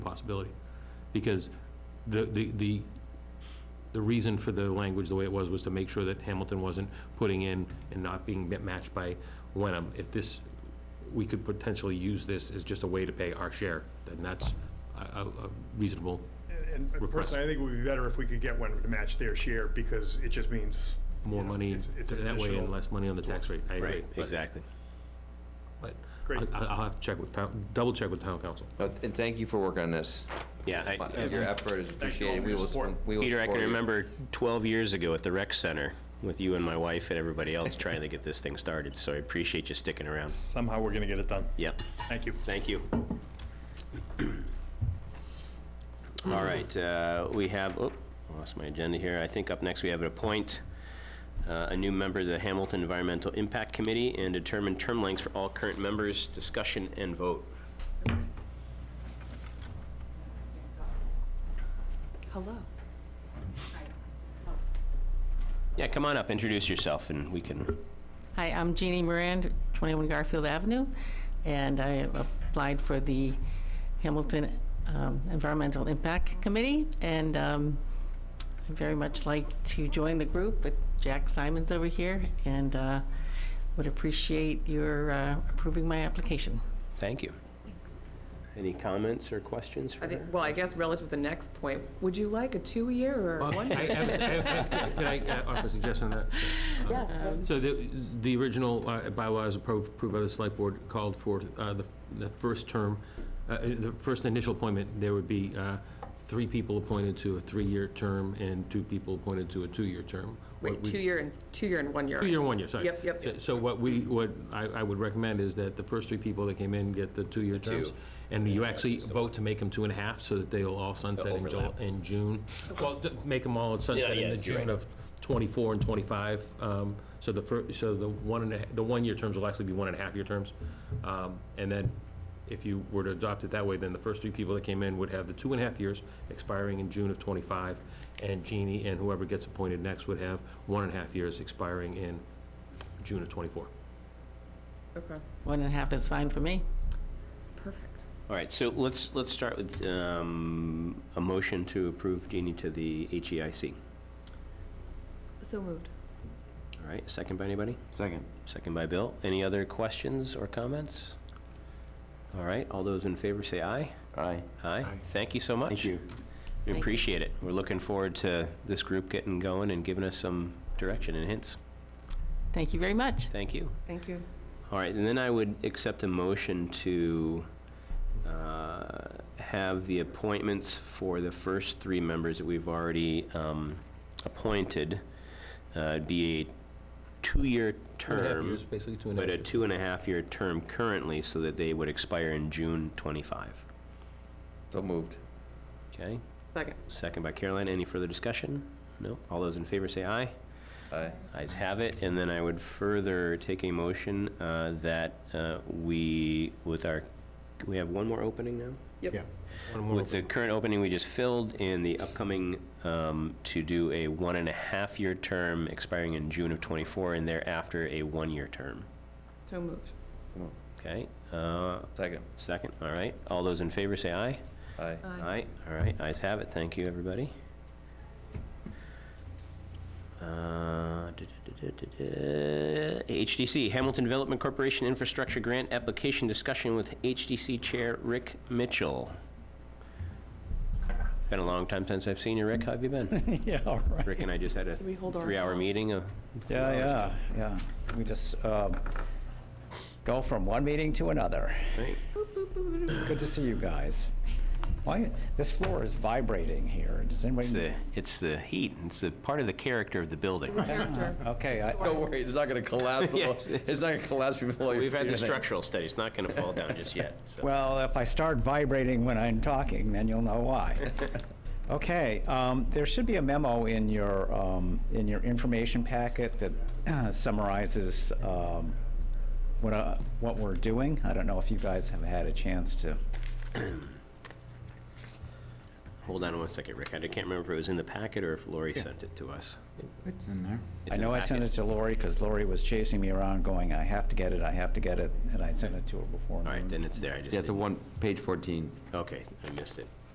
responsibility. Because the, the, the, the reason for the language the way it was, was to make sure that Hamilton wasn't putting in and not being ma- matched by Wenham. If this, we could potentially use this as just a way to pay our share, then that's a, a a reasonable, And and Request. personally, I think it would be better if we could get one to match their share, because it just means. more you know, money, it's- it's an that way and additional- less money on the tax rate, I agree. Right, but- exactly. But Great. I- I- I'll have to check with town, double check with town council. No, And thank you for working on this. Yeah, I- Your effort is you all appreciated. for We your will, support. we will Peter, I can support you. remember 12 years ago at the rec center with you and my wife and everybody else trying to get this thing started, so I appreciate you sticking around. Somehow we're gonna get it done. Yep, Thank you. thank you. All right, uh, we have, oh, lost my agenda here. I think up next we have an appoint uh, a new member to the Hamilton Environmental Impact Committee and determine term lengths for all current members, discussion and vote. Hello. Yeah, come on up, introduce yourself, and we can Hi, I'm Jeannie Moran, 21 Garfield Avenue, and I applied for the Hamilton um, Environmental Impact Committee, and um, I'd very much like to join the group, but Jack Simon's over here, and uh, would appreciate your uh, approving my application. Thank you. Any comments or questions for I think, her? well, I guess relative to the next point, would you like a two-year or a Well, I- I one-year? have a- I- I- Could I uh, offer a suggestion on that? Yes, that's- So the, the original uh, bylaws approved, approved by the select board called for uh, the, the first term, uh, the first initial appointment, there would be uh, three people appointed to a three-year term and two people appointed to a two-year term. What wait, we- two-year and, two-year and one-year. Two-year, and one-year, sorry. Yep, yep. Yeah, So what we, what I, I would recommend is that the first three people that came in get the two-year terms. And you actually vote to make them two and a half, so that they'll all sunset in Jul, overlap. in June. Well, to make them all sunset yeah, in the you're June right. of twenty-four and twenty-five. Um, So the fir, so the one and a, the one-year terms will actually be one and a half-year terms. Um, And then if you were to adopt it that way, then the first three people that came in would have the two and a half years expiring in June of twenty-five. And Jeannie and whoever gets appointed next would have one and a half years expiring in June of twenty-four. Okay, One and a half is fine for me. perfect. All right, so let's, let's start with um, a motion to approve Jeannie to the E HEIC. So moved. All right, second by anybody? Second. Second by Bill. Any other questions or comments? All right, all those in favor say aye. Aye. Aye. Thank you so much. Thank you. We Thank you. appreciate it. We're looking forward to this group getting going and giving us some direction and hints. Thank you very much. Thank you. Thank you. All right, and then I would accept a motion to uh, have the appointments for the first three members that we've already um, appointed uh, be a two-year Two and a half term, years, Basically, two and a half but a years. two-and-a-half-year term currently, so that they would expire in June 25. So moved. Okay, Second. second by Caroline. Any further discussion? No? All those in favor say aye. Aye. Ayes have it, and then I would further take a motion uh, that uh, we, with our, we have one more opening now? Yep. One more With the open. current opening we just filled and the upcoming um, to do a one and a half year term expiring in June of '24 and thereafter a one-year term. So moved. Okay, uh, Second. second, all right. All those in favor say aye. Aye. Aye, all right, ayes have it, thank you, everybody. Uh, HDC, Hamilton Development Corporation Infrastructure Grant Application Discussion with HDC Chair Rick Mitchell. Been a long time since I've seen you, Rick, how have you been? Yeah, all right. Rick and I just had a Can we hold our three-hour applause? meeting, uh, Yeah, yeah, yeah. We just um, go from one meeting to another. right? Good to see you guys. Why, this floor is vibrating here. Does It's anybody? the, it's the heat, it's the part of the character of the building. Character. Okay, I- Don't worry, it's not gonna collapse. below- Yes. It's not gonna collapse before you. We've had the structural study, it's not gonna fall down just yet, so. well, if I start vibrating when I'm talking, then you'll know why. Okay, um, there should be a memo in your, um, in your information packet that summarizes um, what, uh, what we're doing. I don't know if you guys have had a chance to Hold on one second, Rick. I can't remember if it was in the packet or if Lori sent it to us. It's in there. It's I in the know I sent it packet. to Lori, because Lori was chasing me around going, I have to get it, I have to get it, and I sent it to her before. All right, noon. then it's there. I just Yeah, it's a didn't- one, page 14. Okay, I missed it.